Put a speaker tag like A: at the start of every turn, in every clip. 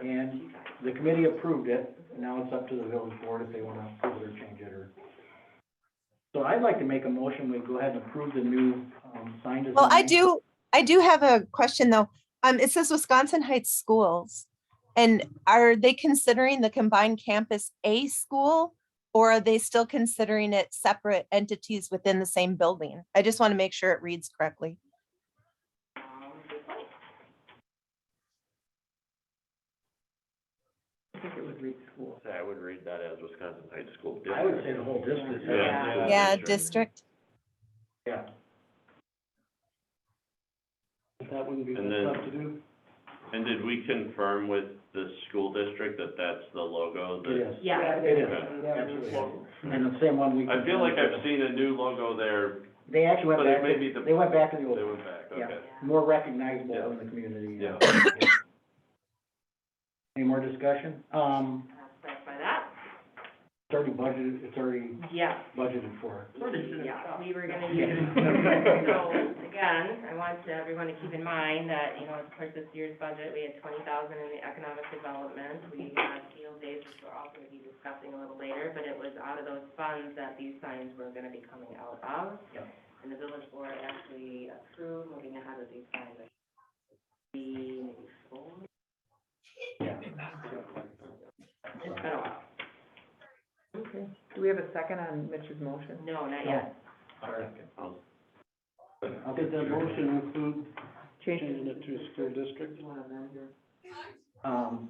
A: And the committee approved it, and now it's up to the village board if they wanna approve it or change it or. So I'd like to make a motion, we go ahead and approve the new, um, sign design.
B: Well, I do, I do have a question though. Um, it says Wisconsin Heights Schools. And are they considering the combined campus a school? Or are they still considering it separate entities within the same building? I just want to make sure it reads correctly.
A: I think it would read school.
C: I would read that as Wisconsin Heights School.
A: I would say the whole district.
C: Yeah.
B: Yeah,
C: sure.
B: district.
A: Yeah. If that wouldn't be
C: And then-
A: tough to do,
C: And did we confirm with the school district that that's the logo
A: it
C: that?
A: is.
D: Yeah.
A: It is,
C: Okay.
A: absolutely. And the same one we.
C: I feel like I've seen a new logo there,
A: They actually went
C: but it
A: back,
C: may be the-
A: to- they went back to the old,
C: they went back,
A: Yeah.
C: okay.
A: more recognizable
C: Yeah.
A: in the community.
C: Yeah.
A: Any more discussion? Um,
D: Clarify that.
A: it's already budgeted, it's already
D: Yeah.
A: budgeted for.
D: Yeah, we were gonna use, so, again, I want to- everyone to keep in mind that, you know, as part of this year's budget, we had twenty thousand in the economic development. We had field days, which we're also gonna be discussing a little later, but it was out of those funds that these signs were gonna be coming out of.
A: Yep.
D: And the village board actually approved moving ahead with these signs. like, The, maybe four, it's been a while.
E: Okay. Do we have a second on Mitch's motion?
D: No, not yet.
A: Did the motion include
E: Changing
A: it to school district? Um,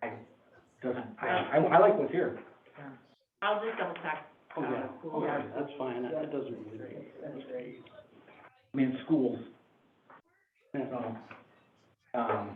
A: I, doesn't, I, I, I like what's here.
D: I'll just double check.
A: Oh, yeah.
D: Cool. Okay,
A: that's fine, that doesn't really. I mean, schools. So, Um,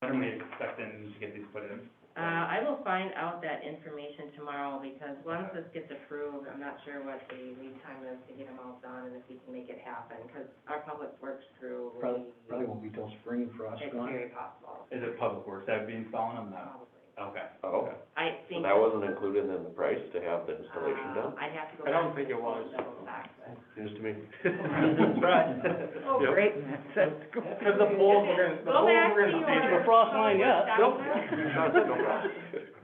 F: When are we expecting to get these put in?
D: Uh, I will find out that information tomorrow, because once this gets approved, I'm not sure what the lead time is to get them all done, and if we can make it happen, because our public works crew
A: probably,
D: really,
A: probably won't be till spring for us,
D: it's
A: going.
D: very possible,
F: Is it Public Works that would be installing them now?
D: probably.
F: Okay.
C: Oh,
D: I
C: so
D: think.
C: that wasn't included in the price to have the installation done?
D: uh, I'd have to go.
F: I don't
D: back
F: think it was.
D: and double check, but-
C: News to
A: That's right.
D: Oh,
C: Yep.
E: Great, that's cool.
F: Because the poles were gonna, the
D: Go
F: poles
D: back to
F: were gonna.
D: your.
F: change.
D: frost line,
A: Ah.
D: yeah.
C: Yep.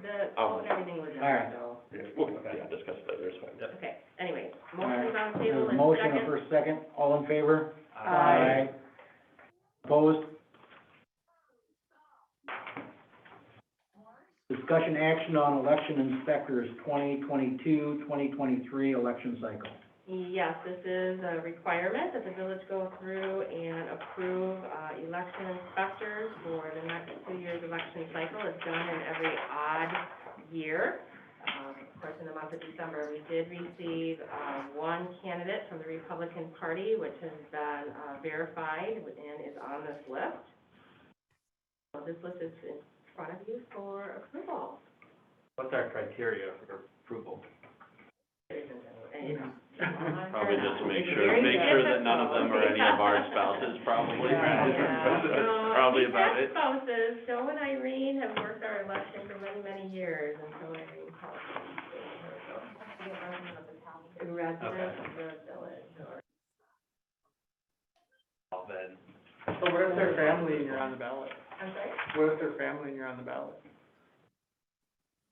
D: The,
C: Oh.
D: and everything was
A: All right.
D: done, so,
C: Yeah, discuss that, there's fine.
D: okay, anyway,
A: All right.
D: motion's on the
A: There's a
D: table, and
A: motion
D: second.
A: for a second, all in favor?
D: Aye.
A: Opposed? Discussion action on election inspectors 2022-2023 election cycle.
D: Yes, this is a requirement that the village go through and approve, uh, election inspectors for the next two years election cycle. It's done in every odd year. Um, of course, in the month of December, we did receive, uh, one candidate from the Republican Party, which has been, uh, verified and is on this list. So this list is in front of you for approval.
F: What's our criteria for approval?
D: There isn't any.
C: Probably just to make sure, make sure that none of them are any of our spouses, probably.
F: Yeah.
C: That's Probably about it.
D: Spouses, Joe and Irene have worked our election for many, many years, and so Irene calls them. Resident of the village, or,
F: Well, Then,
E: So what if they're family and you're on the ballot?
D: I'm sorry,
E: What if they're family and you're on the ballot?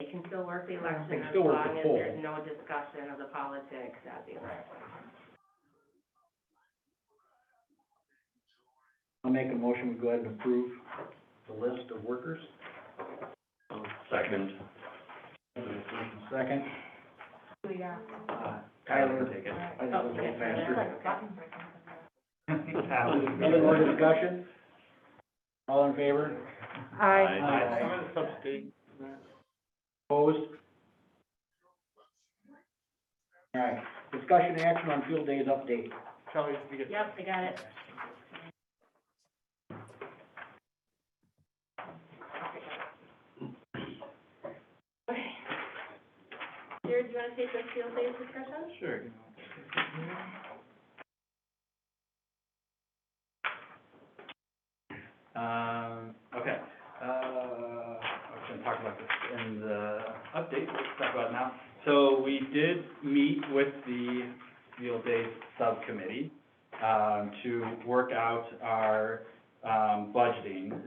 D: they can still work the
A: They
D: election
A: can
D: as
A: still work the
D: long as
A: poll.
D: there's no discussion of the politics at the election.
A: I'll make a motion, we go ahead and approve the list of workers.
C: Second.
A: Second,
D: Yeah.
A: uh,
F: Tyler
A: Tyler.
F: can take it.
A: I just
D: Oh,
A: looked at faster.
F: Oh,
A: Any more
F: Tyler.
A: discussion? All in favor?
C: Aye.
A: Opposed? All right, discussion action on field days update.
E: Charlie, did you get
D: Yep, I got it. Okay. Jared, do you wanna take the field days discussion?
F: Sure. Um, okay, uh, I was gonna talk about this in the update, let's talk about it now. So we did meet with the field day subcommittee, um, to work out our um, budgeting